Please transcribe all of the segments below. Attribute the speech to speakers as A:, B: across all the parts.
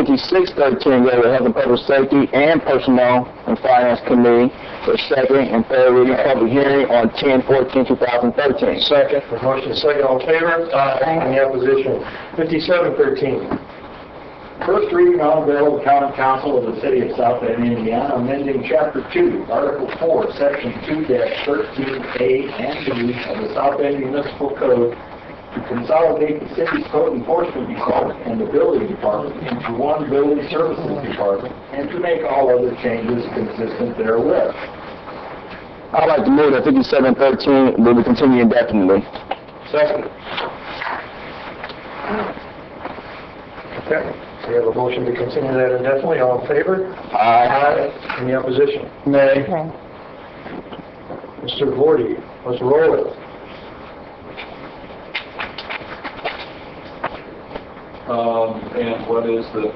A: fifty-six thirteen, go to Health and Public Safety and Personnel and Finance Committee for second and third reading public hearing on 10-14-2013.
B: Second. The motion is second, all in favor? Aye. Any opposition? 5713.
C: First reading on a bill of the common council of the city of South Bend, Indiana, amending chapter two, article four, section two thirteen A and B of the South Bend Municipal Code to consolidate the city's code enforcement department and the building department into one building services department and to make all other changes consistent therewith.
A: I'd like to move that fifty-seven thirteen will be continued indefinitely.
B: Second. Okay, we have a motion to continue that indefinitely, all in favor? Aye. Any opposition? Nay. Mr. Vorty, let's roll it.
D: Um, and what is the,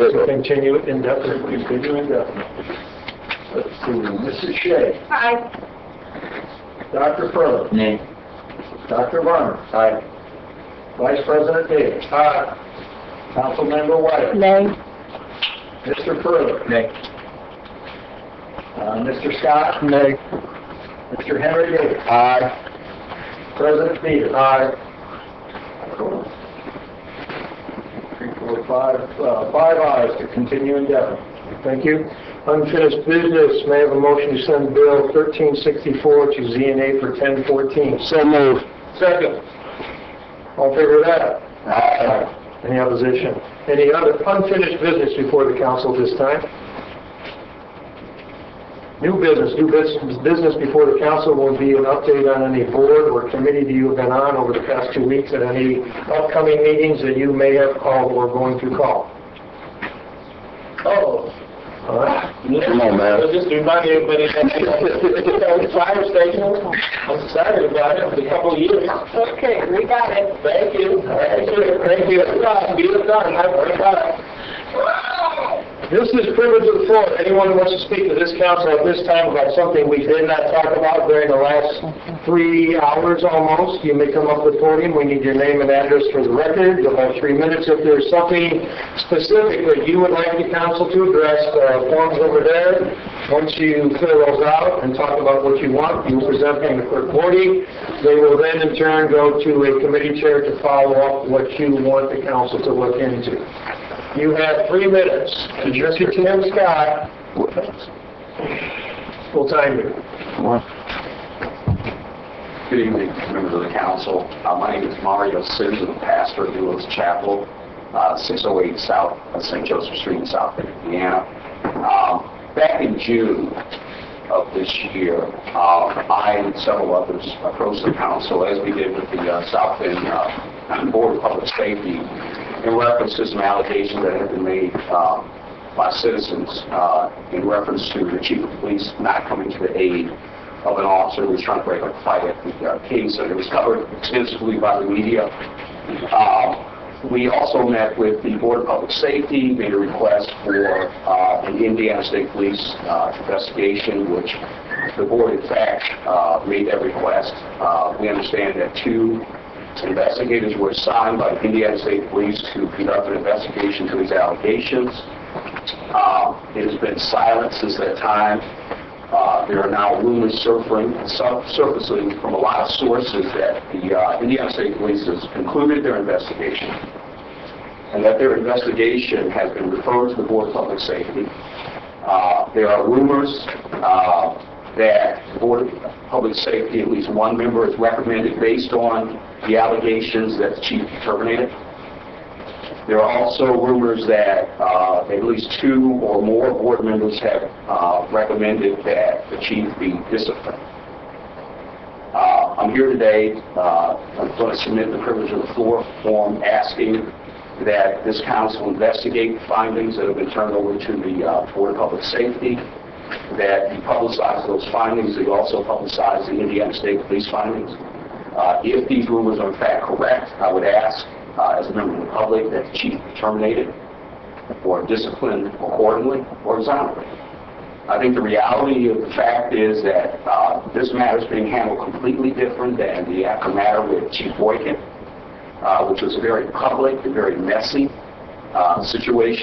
B: To continue it indefinitely.
C: Continue indefinitely. Let's see, Mrs. Shea.
E: Aye.
C: Dr. Furlow. Nay. Dr. Varner. Aye. Vice President Davis. Aye. Councilmember White.
E: Nay.
C: Mr. Furlow. Nay. Uh, Mr. Scott. Nay. Mr. Henry Davis. Aye. President Peters. Aye. Three, four, five, uh, five ayes to continue indefinitely.
B: Thank you. Unfinished business, may I have a motion to send Bill 1364 to ZNA for 1014?
A: So moved.
B: Second. All in favor of that? Aye. Any opposition? Any other unfinished business before the council this time? New business, new business business before the council will be an update on any board or committee that you have been on over the past two weeks and any upcoming meetings that you may have called or going to call.
C: Oh,
B: All right?
A: Come on, man.
C: Just to remind everybody that the fire station, I'm sorry about it, it's a couple of years.
E: Okay, we got it.
C: Thank you. Thank you. Thank you. Be the son, I
B: This is privilege of the floor. Anyone who wants to speak to this council at this time about something we did not talk about during the last three hours almost, you may come up to the podium. We need your name and address for the record. You'll have three minutes. If there's something specific that you would like the council to address, uh, forms over there. Once you fill those out and talk about what you want, you present them to Clerk Forty. They will then in turn go to a committee chair to follow up what you want the council to look into. You have three minutes. Mr. Tim Scott will time you.
F: Good evening, members of the council. Uh, My name is Mario Sims, I'm a pastor of Newlands Chapel, uh, 608 South, uh, St. Joseph Street in South Bend, Indiana. Um, Back in June of this year, uh, I and several others approached the council, as we did with the uh, South Bend uh, Board of Public Safety, in reference to some allegations that had been made um, by citizens uh, in reference to the chief of police not coming to the aid of an officer who was trying to break up a fight at the uh, Kings, and it was covered extensively by the media. Uh, We also met with the Board of Public Safety, made a request for uh, an Indiana State Police uh, investigation, which the board in fact uh, made that request. Uh, We understand that two investigators were assigned by the Indiana State Police to conduct an investigation to these allegations. Uh, It has been silent since that time. Uh, There are now rumors surfacing sur- surfacing from a lot of sources that the uh, Indiana State Police has concluded their investigation, and that their investigation has been referred to the Board of Public Safety. Uh, There are rumors uh, that the Board of Public Safety, at least one member is recommended based on the allegations that the chief terminated. There are also rumors that uh, at least two or more board members have uh, recommended that the chief be disciplined. Uh, I'm here today, uh, I'm going to submit the privilege of the floor form asking that this council investigate findings that have been turned over to the uh, Board of Public Safety, that you publicize those findings, that you also publicize the Indiana State Police findings. Uh, If these rumors are in fact correct, I would ask, uh, as a member of the public, that the chief be terminated or disciplined accordingly or exonerated. I think the reality of the fact is that uh, this matter is being handled completely different than the Acton matter with Chief Boykin, uh, which was a very public, a very messy uh, situation.